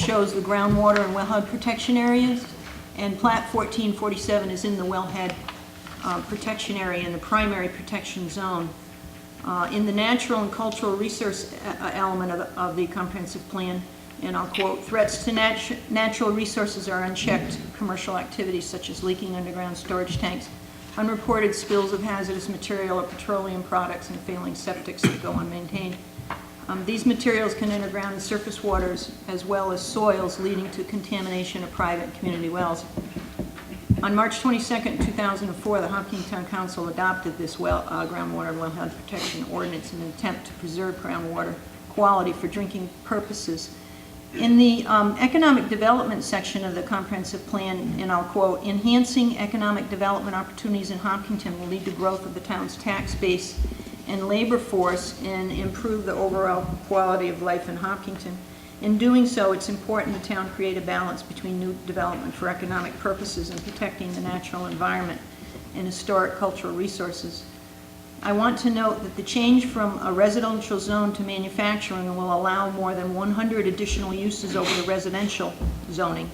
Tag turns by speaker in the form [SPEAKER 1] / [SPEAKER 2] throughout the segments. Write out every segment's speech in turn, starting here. [SPEAKER 1] shows the groundwater and wellhead protection areas, and plat 1447 is in the wellhead uh, protection area in the primary protection zone. Uh, In the natural and cultural resource e- e- element of- of the comprehensive plan, and I'll quote, "Threats to natu- natural resources are unchecked. Commercial activities such as leaking underground storage tanks, unreported spills of hazardous material or petroleum products, and failing septics that go unmaintained. Um, These materials can enter ground and surface waters as well as soils, leading to contamination of private and community wells. On March 22nd, 2004, the Hopkinton Town Council adopted this well, uh, groundwater and wellhead protection ordinance in an attempt to preserve groundwater quality for drinking purposes. In the um, economic development section of the comprehensive plan, and I'll quote, "Enhancing economic development opportunities in Hopkinton will lead to growth of the town's tax base and labor force and improve the overall quality of life in Hopkinton. In doing so, it's important the town create a balance between new development for economic purposes and protecting the natural environment and historic cultural resources. I want to note that the change from a residential zone to manufacturing will allow more than 100 additional uses over the residential zoning.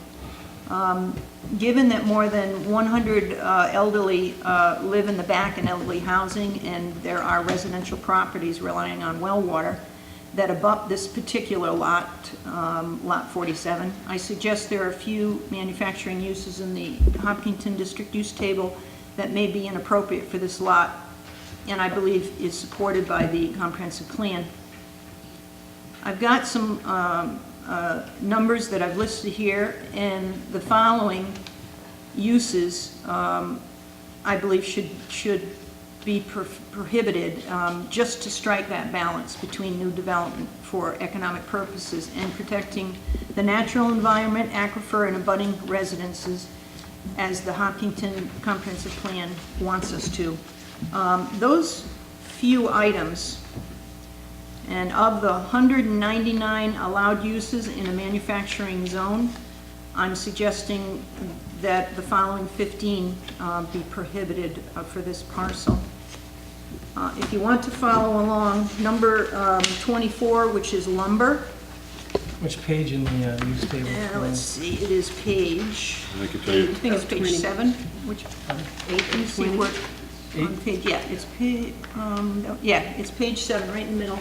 [SPEAKER 1] Um, Given that more than 100 uh, elderly uh, live in the back in elderly housing, and there are residential properties relying on well water that abut this particular lot, um, Lot 47, I suggest there are a few manufacturing uses in the Hopkinton District Use Table that may be inappropriate for this lot, and I believe is supported by the comprehensive plan. I've got some um, uh, numbers that I've listed here, and the following uses, um, I believe, should, should be pro- prohibited, um, just to strike that balance between new development for economic purposes and protecting the natural environment, aquifer, and abutting residences, as the Hopkinton Comprehensive Plan wants us to. Um, Those few items and of the 199 allowed uses in a manufacturing zone, I'm suggesting that the following 15 uh, be prohibited uh, for this parcel. Uh, If you want to follow along, number um, 24, which is lumber,
[SPEAKER 2] Which page in the uh, use table?
[SPEAKER 1] and let's see, it is page,
[SPEAKER 3] I can tell
[SPEAKER 1] I
[SPEAKER 3] you,
[SPEAKER 1] think it's page
[SPEAKER 4] Twenty.
[SPEAKER 1] seven, which, let me see what, on
[SPEAKER 2] Eight?
[SPEAKER 1] page, yeah, it's pa, um, no, yeah, it's page seven, right in the middle.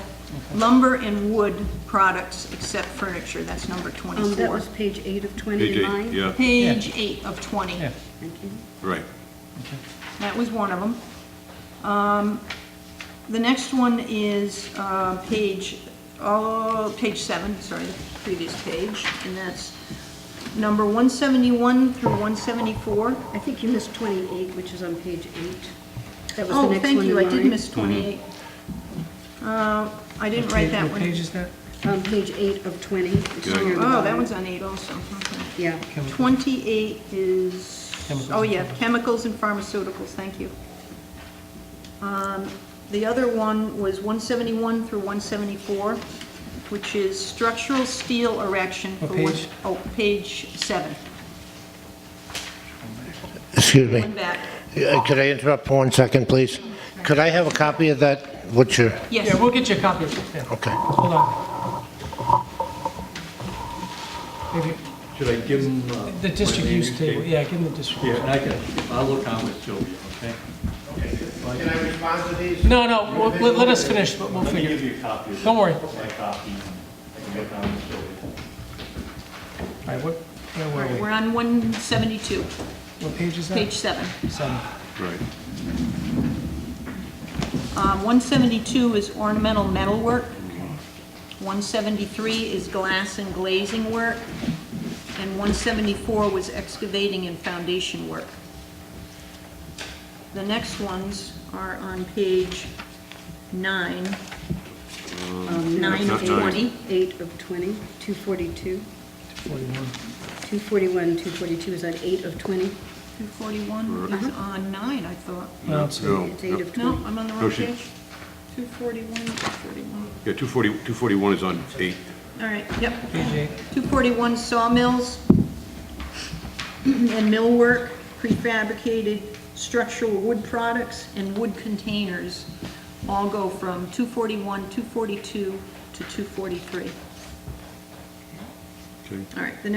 [SPEAKER 1] Lumber and wood products except furniture, that's number
[SPEAKER 4] Um, that
[SPEAKER 1] twenty-four.
[SPEAKER 4] was page eight of twenty
[SPEAKER 3] page
[SPEAKER 4] in mine.
[SPEAKER 3] eight, yeah,
[SPEAKER 1] Page eight of twenty,
[SPEAKER 2] Yeah.
[SPEAKER 4] Thank you.
[SPEAKER 3] right.
[SPEAKER 1] that was one of them. Um, the next one is, uh, page, oh, page seven, sorry, the previous page, and that's number one seventy-one through one seventy-four.
[SPEAKER 4] I think you missed twenty-eight, which is on page eight. That was the
[SPEAKER 1] Oh,
[SPEAKER 4] next
[SPEAKER 1] thank
[SPEAKER 4] one
[SPEAKER 1] you,
[SPEAKER 4] in
[SPEAKER 1] I did
[SPEAKER 4] mine.
[SPEAKER 1] miss 28. Uh, I didn't write that
[SPEAKER 2] What
[SPEAKER 1] one.
[SPEAKER 2] Mm-hmm. page is that?
[SPEAKER 4] Um, page eight of twenty. It's
[SPEAKER 3] Yeah.
[SPEAKER 4] on your
[SPEAKER 1] Oh, that
[SPEAKER 4] bottom.
[SPEAKER 1] one's on 8 also. okay.
[SPEAKER 4] Yeah.
[SPEAKER 1] 28 is,
[SPEAKER 2] Chemicals
[SPEAKER 1] oh
[SPEAKER 2] and
[SPEAKER 1] yeah, chemicals and pharmaceuticals, thank you. Um, The other one was 171 through 174, which is structural steel erection for
[SPEAKER 2] What
[SPEAKER 1] wood.
[SPEAKER 2] page?
[SPEAKER 1] Oh, page 7,
[SPEAKER 5] Excuse me.
[SPEAKER 1] one back.
[SPEAKER 5] Uh, Could I interrupt for one second, please? Could I have a copy of that? What's your,
[SPEAKER 1] Yes.
[SPEAKER 2] Yeah, we'll get you a copy of it. Yeah.
[SPEAKER 5] okay.
[SPEAKER 2] Hold on. Maybe
[SPEAKER 6] Should I give them? uh,
[SPEAKER 2] The district
[SPEAKER 6] my name
[SPEAKER 2] use
[SPEAKER 6] and
[SPEAKER 2] table,
[SPEAKER 6] date?
[SPEAKER 2] yeah, give them the district.
[SPEAKER 6] Yeah, and I can, I'll look on with Sylvia, okay?
[SPEAKER 5] Can I respond to these?
[SPEAKER 2] No, no, we'll- let, let us finish, but we'll
[SPEAKER 6] Let me
[SPEAKER 2] figure
[SPEAKER 6] give
[SPEAKER 2] it.
[SPEAKER 6] you a copy of it.
[SPEAKER 2] Don't worry.
[SPEAKER 6] My copy, and I can look on with Sylvia.
[SPEAKER 2] All right, what, where
[SPEAKER 1] All
[SPEAKER 2] were
[SPEAKER 1] right,
[SPEAKER 2] we?
[SPEAKER 1] We're on 172,
[SPEAKER 2] What page is that?
[SPEAKER 1] page 7.
[SPEAKER 2] Seven.
[SPEAKER 3] Right.
[SPEAKER 1] Um, 172 is ornamental metalwork. 173 is glass and glazing work. And 174 was excavating and foundation work. The next ones are on page nine.
[SPEAKER 4] Um,
[SPEAKER 1] Nine
[SPEAKER 3] of
[SPEAKER 4] eight-
[SPEAKER 1] 20.
[SPEAKER 4] Eight of twenty, two forty-two.
[SPEAKER 2] Forty-one.
[SPEAKER 4] Two forty-one, two forty-two is on eight of twenty.
[SPEAKER 1] 241 is on nine, I thought.
[SPEAKER 2] No, it's-
[SPEAKER 3] No,
[SPEAKER 4] It's eight
[SPEAKER 3] no.
[SPEAKER 4] of
[SPEAKER 1] No,
[SPEAKER 4] twenty.
[SPEAKER 1] I'm on the
[SPEAKER 3] No,
[SPEAKER 1] wrong
[SPEAKER 3] she-
[SPEAKER 1] page. 241, 241.
[SPEAKER 3] Yeah, 240, 241 is on eight.
[SPEAKER 1] All right, yep.
[SPEAKER 2] Page eight.
[SPEAKER 1] 241 sawmills and millwork, prefabricated structural wood products, and wood containers all go from 241, 242 to 243.
[SPEAKER 3] Okay.
[SPEAKER 1] All right, the